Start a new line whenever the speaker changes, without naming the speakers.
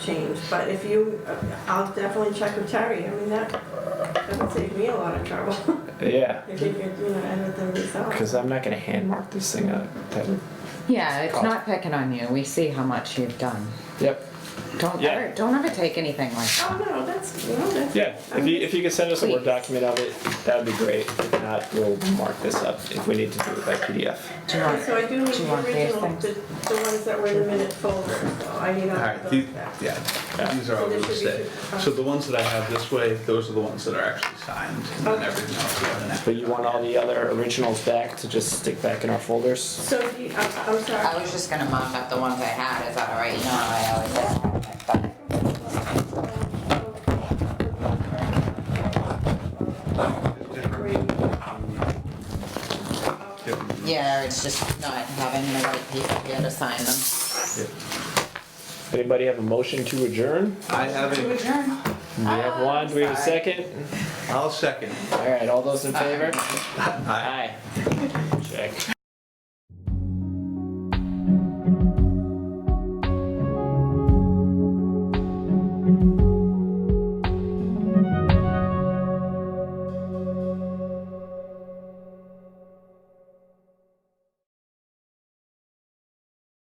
change, but if you, uh, I'll definitely check with Terry, I mean, that, that would save me a lot of trouble.
Yeah,
If you could, you know, edit them yourself.
because I'm not gonna hand mark this thing up. That would-
Yeah, it's
Cost.
not picking on you. We see how much you've done.
Yep.
Don't
Yeah.
ever, don't ever take anything like that.
Oh, no, that's, no, that's.
Yeah, if you, if you could send us a Word
Please.
document of it, that would be great. If not, we'll mark this up if we need to do it by PDF.
Do you
Okay, So I
want,
do need
Do you
the
want these
original,
things?
the, the ones that were in the minute folder, so I need all
Alright,
of those
these,
back.
yeah, these are all
This
those
should be-
that, so the ones that I have this way, those are the ones that are actually signed, and then
Okay.
everything else we have an
But you want all the other originals back to just stick back in our folders?
So do you, I'm, I'm sorry.
I was just gonna mock up the ones I had. Is that all right? You know how I always have them, but- Yeah, it's just not having the right people here to sign them.
Anybody have a motion to adjourn?
I have
To
a,
adjourn.
Do we have one? Do we have a
Ah, Sorry.
second?
I'll second.
All right, all those in favor?
I-
Aye. Check.